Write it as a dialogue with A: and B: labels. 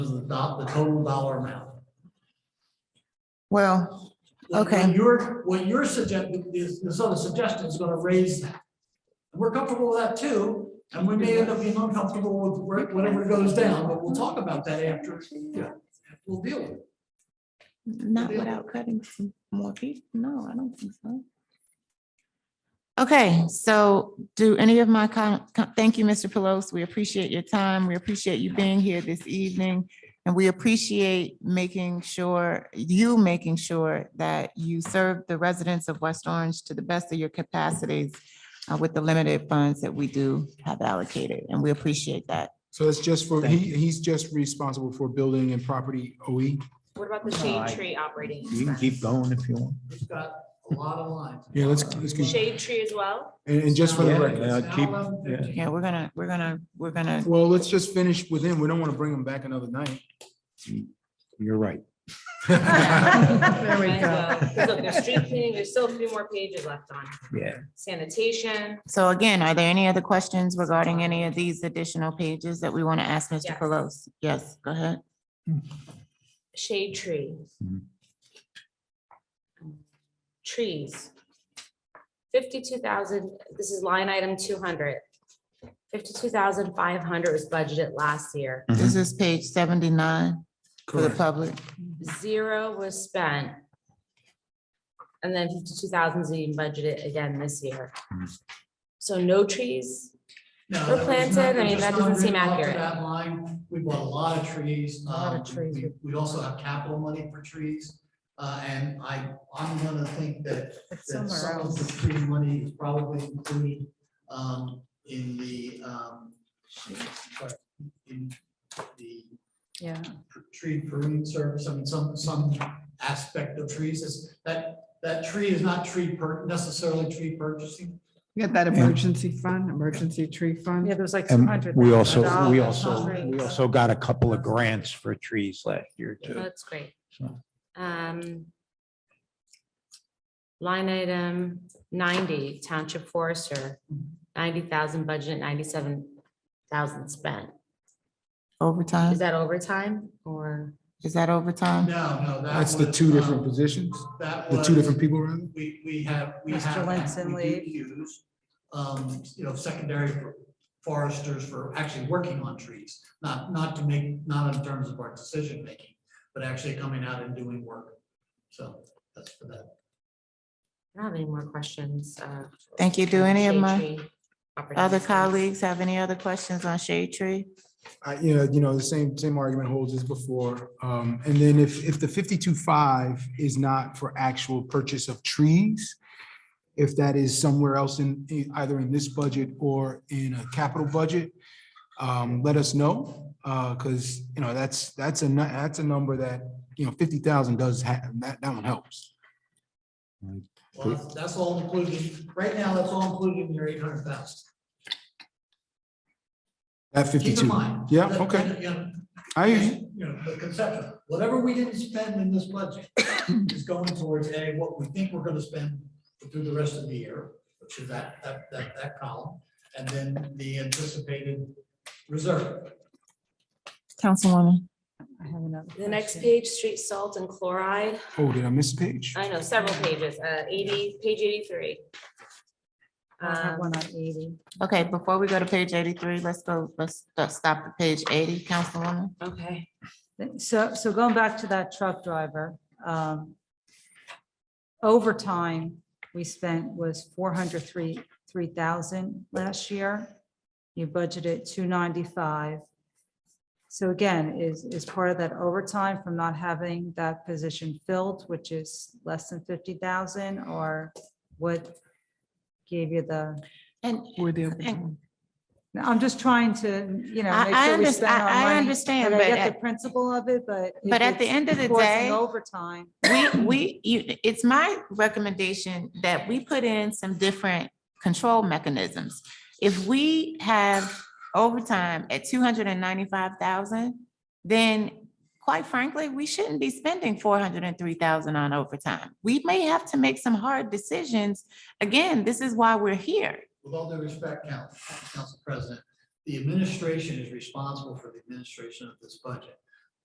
A: was the do- the total dollar amount.
B: Well,
A: What- what
B: Okay.
A: You're, what you're suggesting, this, this other suggestion is gonna raise that. We're comfortable with that too, and we may end up being uncomfortable with where- whatever goes down, but we'll talk about that after. Yeah. We'll deal with it.
B: not
A: Yeah.
B: without cutting some more people. No, I don't think so. Okay, so do any of my, com- com- thank you, Mr. Pelosi. We appreciate your time. We appreciate you being here this evening. And we appreciate making sure, you making sure that you serve the residents of West Orange to the best of your capacities uh, with the limited funds that we do have allocated, and we appreciate that.
C: So that's just for, he, he's just responsible for building and property E. OE?
D: What about the
E: No,
D: shade
E: I-
D: tree operating?
E: You can keep
D: expense?
E: going if you want.
A: We've got a lot of lines.
C: Yeah, let's- let's keep-
D: Shade tree as well?
C: And, and just for the
E: Yeah.
C: record,
E: uh, keep-
B: Yeah, we're gonna, we're gonna, we're gonna,
C: well, let's just finish with him. We don't want to bring him back another night.
E: You're right.
D: There we go. Look, there's street cleaning, there's still a few more pages left on
E: Yeah.
D: sanitation.
B: so again, are there any other questions regarding any of these additional pages that we want to ask Mr.
D: Yes.
B: Pelosi? Yes, go ahead.
D: shade tree.
E: Mhm. Mm-hmm.
D: Trees. Fifty-two thousand, this is line item two hundred. Fifty-two thousand five hundred was budgeted last year.
B: This is page seventy-nine for the
C: Correct.
B: public.
D: Zero was spent. And then fifty-two thousand is being budgeted again this year.
E: Mhm.
D: So no trees, We're planted, I mean, that doesn't seem accurate.
A: That line, we bought a lot of trees.
D: A lot of
A: um,
D: trees.
A: we- We also have capital money for trees, uh, and I, I'm gonna think that that some of the free money is probably included um in the um in the
D: Yeah.
A: tree pruning service, I mean, some some aspect of trees is that that tree is not tree per necessarily tree purchasing.
F: We had that emergency fund, emergency tree fund.
G: Yeah, there was like two
E: And
G: hundred.
E: we also,
A: $200,000.
E: we also, we also got a couple of grants for trees last year too.
D: Oh, That's great.
E: So-
D: Um. Line item ninety, township forester, ninety thousand budget, ninety-seven thousand spent. Is
B: Overtime,
D: that overtime or?
B: is that overtime?
A: No, no, that
C: That's the
A: was,
C: two
A: um,
C: different positions,
A: That
C: the
A: was-
C: two different people, rather?
A: We, we have, we
G: Mr.
A: have.
G: Lenson
A: we do
G: leave.
A: Use, um, you know, secondary foresters for actually working on trees, not, not to make, not in terms of our decision making, but actually coming out and doing work. So that's for that.
D: I don't have any more questions. uh,
B: Thank you. Do any of
D: shade
B: my
D: tree
B: other
D: opportunities.
B: colleagues have any other questions on shade tree?
C: I, you know, you know, the same, same argument holds as before. Um, and then if, if the fifty-two five is not for actual purchase of trees, if that is somewhere else in, in- either in this budget or in a capital budget, um, let us know. Uh, cause, you know, that's, that's a, nu- that's a number that, you know, fifty thousand does have, that, that one helps.
A: Well, that's- that's all included, right now, that's all included in your eight hundred thousand.
C: That
A: Keep in
C: fifty-two.
A: mind.
C: Yeah,
A: that-
C: okay.
A: that, you know,
C: I, hear you.
A: You know, the conception, whatever we didn't spend in this budget is going towards A, what we think we're gonna spend through the rest of the year, which is that, that, that, that column, and then the anticipated reserve.
B: Councilwoman,
G: I have another
D: The next
G: question.
D: page, street salt and chloride,
C: oh, did I miss a page?
D: I know, several pages, uh, eighty, page eighty-three.
G: I have
D: Um,
G: one on eighty.
B: okay, before we go to page eighty-three, let's go, let's st- stop at page eighty, Councilwoman.
D: Okay.
G: So, so going back to that truck driver, um, overtime we spent was four hundred three, three thousand last year. You budgeted two ninety-five. So again, is, is part of that overtime from not having that position filled, which is less than fifty thousand, or what gave you the?
B: And
F: Were there-
B: And-
G: No, I'm just trying to, you know.
B: I-
G: make
B: I
G: sure we
B: underst-
G: spend
B: I-
G: our
B: I
G: money,
B: understand,
G: I
B: but
G: get
B: at-
G: the principle of it, but. if
B: But at the
G: it's
B: end of the
G: forcing
B: day-
G: Overtime.
B: we, we, you, it's my recommendation that we put in some different control mechanisms. If we have overtime at two hundred and ninety-five thousand, then quite frankly, we shouldn't be spending four hundred and three thousand on overtime. We may have to make some hard decisions. Again, this is why we're here.
A: With all due respect, Council, Council President, the administration is responsible for the administration of this budget.